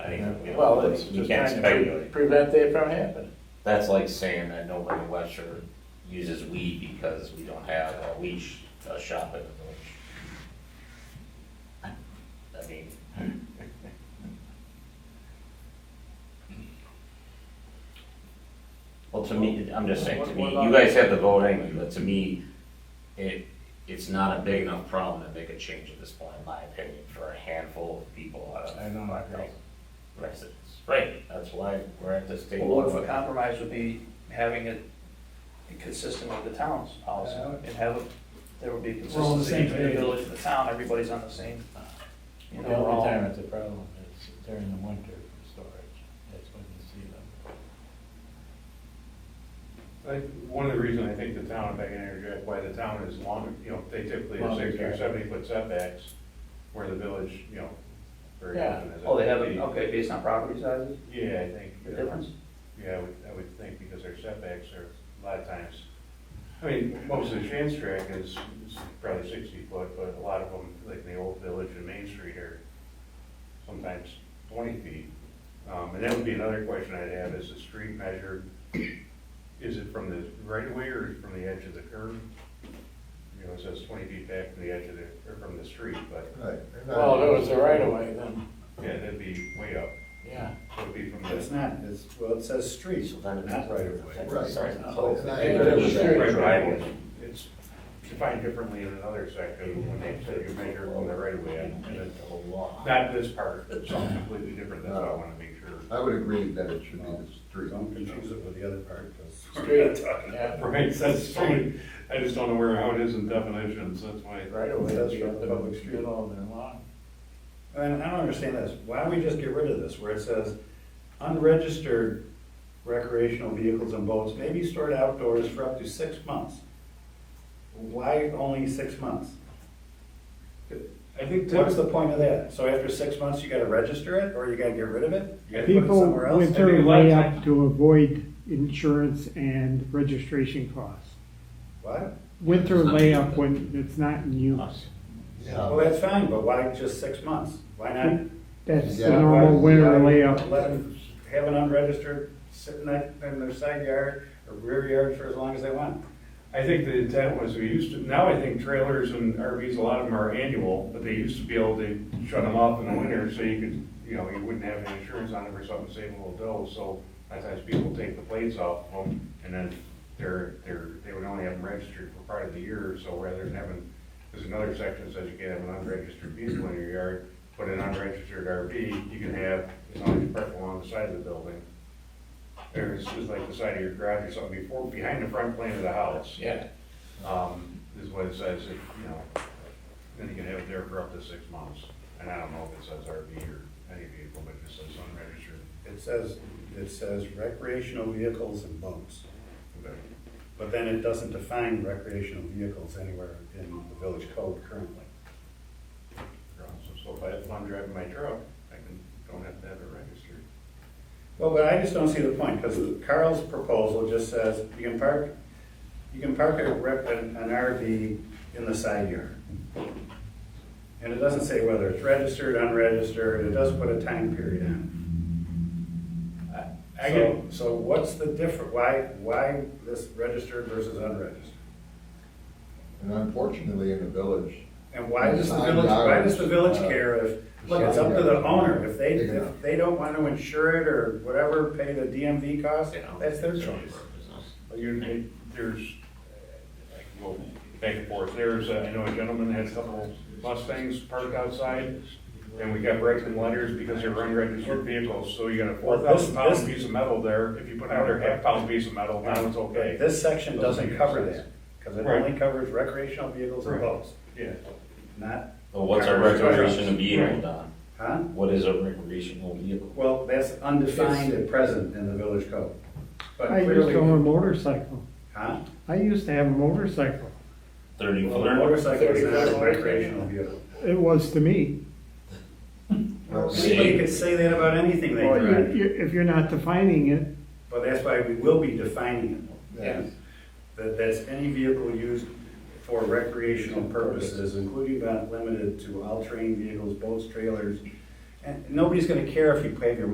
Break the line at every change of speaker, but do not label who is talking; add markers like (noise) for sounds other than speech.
Well, it's
You
just
can't
trying to pre-
speculate.
prevent that from happening.
That's like saying that nobody in Webster uses weed because we don't have a weed sh- a shop in the village. I mean, well, to me, I'm just saying, to me, you guys have the vote anyway, but to me, it, it's not a big enough problem to make a change at this point, in my opinion, for a handful of people out of
I know, I
five
agree.
thousand residents. Right, that's why we're at this
Well,
table.
what if a compromise would be having it consistent with the town's policy, and have, it- there would be
We're all on the
consistency
same
between the
page.
village and the town, everybody's on the same, you
The
know, um, we're all-
only time it's a problem is during the winter for storage, that's when you see them.
Like, one of the reasons I think the town, if I can interject, why the town is long, you know, they typically have
Longer
sixty or
setback.
seventy foot setbacks, where the village, you know, very
Yeah.
often is.
Oh, they have it, okay, based on property sizes,
Yeah, I think.
the difference?
Yeah, I would, I would think because their setbacks are a lot of times, I mean, most of the Shands track is is probably sixty foot, but a lot of them, like the old village and Main Street are sometimes twenty feet. Um, and that would be another question I'd have, is the street measured, is it from the right of way or is it from the edge of the curb? You know, it says twenty feet back from the edge of the, or from the street, but,
Right. they're not-
Well, if it was the right of way, then,
yeah, that'd be way up,
yeah.
it would be from
It's
the.
not, it's, well, it says street,
So then it's
not right of way.
Right.
Sorry.
It's not-
If it was
Right,
straight-
right, it's- It's defined differently in another section when they say you measure from the right of way, and it's
The whole law.
not this part, it's something completely different, that's why I wanna make sure.
I would agree that it should be the street.
Don't confuse it with the other part, because.
(laughs)
Street, yeah,
Right, that's so many, I just don't know where, how it is in definitions, that's why.
right of way,
That's
be
right.
the public street all day long.
And I don't understand this, why don't we just get rid of this, where it says unregistered recreational vehicles and boats may be stored outdoors for up to six months? Why only six months?
I think
What's
that's,
the point of that? So after six months, you gotta register it, or you gotta get rid of it? You gotta put it
People
somewhere else?
went their way up to avoid insurance and registration costs.
What?
Winter layup when it's not in use.
Well, that's fine, but why just six months? Why not?
That's the
Yeah,
normal
why-
winter
why
layup.
Let them have an unregistered sitting in their side yard or rear yard for as long as they want.
I think the intent was we used to, now I think trailers and RVs, a lot of them are annual, but they used to be able to shut them off in the winter so you could, you know, you wouldn't have any insurance on them or something, save a little dough, so sometimes people take the plates off of them and then they're, they're, they would only have them registered for part of the year, so rather than having, there's another section that says you can have an unregistered vehicle in your yard, but an unregistered RV, you can have, as long as you park along the side of the building. Or it's just like the side of your garage or something before, behind the front plane of the house
Yeah.
um, is what it says, if, you know, then you can have it there for up to six months. And I don't know if it says RV or any vehicle, but it just says unregistered.
It says, it says recreational vehicles and boats, but then it doesn't define recreational vehicles anywhere in the village code currently.
So if I- if I'm driving my truck, I can, don't have to have it registered.
Well, but I just don't see the point, because Carl's proposal just says you can park, you can park a rep, an an RV in the side yard. And it doesn't say whether it's registered, unregistered, it doesn't put a time period on it.
I
So, so what's the difference, why, why this registered versus unregistered?
And unfortunately, in the village,
And why does the village, why does the village care
Uh,
if, look, it's up to the owner, if they, if they don't want to insure it or whatever, pay the DMV cost, that's their choice.
But you're, it- there's, I can go back and forth, there's, uh, I know a gentleman had a couple Mustangs parked outside, and we kept writing letters because they were unregistered vehicles, so you got a four
Well, this-
thousand pound
this-
piece of metal there, if you put another half pound piece of metal, now it's okay.
But This section doesn't cover that, because it
Right.
only covers recreational vehicles and
Right.
boats,
Yeah.
not,
Well, what's a recreational vehicle, Don?
huh?
What is a recreational vehicle?
Well, that's undefined at present in the village code. But
I used to own a
clearly,
motorcycle.
huh?
I used to have a motorcycle.
Thirty
Well, a
footer?
motorcycle is not a
Thirty-four.
recreational vehicle.
It was to me.
Anybody could say that about anything they
Well, you-
drive,
you- If you're not defining it,
but that's why we will be defining it.
yeah,
That, that's any vehicle used for recreational purposes, including but not limited to all terrain vehicles, boats, trailers. And nobody's gonna care if you pave your